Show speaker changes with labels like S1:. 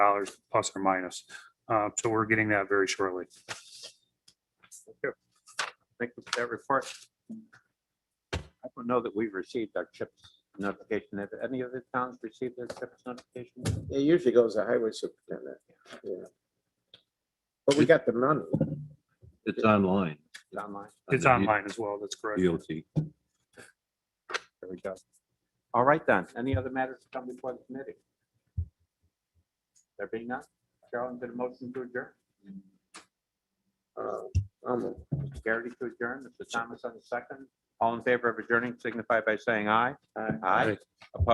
S1: dollars plus or minus. Uh, So we're getting that very shortly.
S2: Thank you for that report. I don't know that we've received our CHIPS notification. Have any other towns received their CHIPS notification?
S3: It usually goes to highway superintendent, yeah. But we got the money.
S4: It's online.
S2: It's online.
S1: It's
S4: on the
S1: online as well. That's correct.
S4: DOT.
S2: There we go. All right then. Any other matters to come before the committee? There being none, Carolyn did a motion to adjourn.
S3: Uh, I'm-
S2: Garrity to adjourn, Mr. Thomas on the second. All in favor of adjourning signify by saying aye. Aye.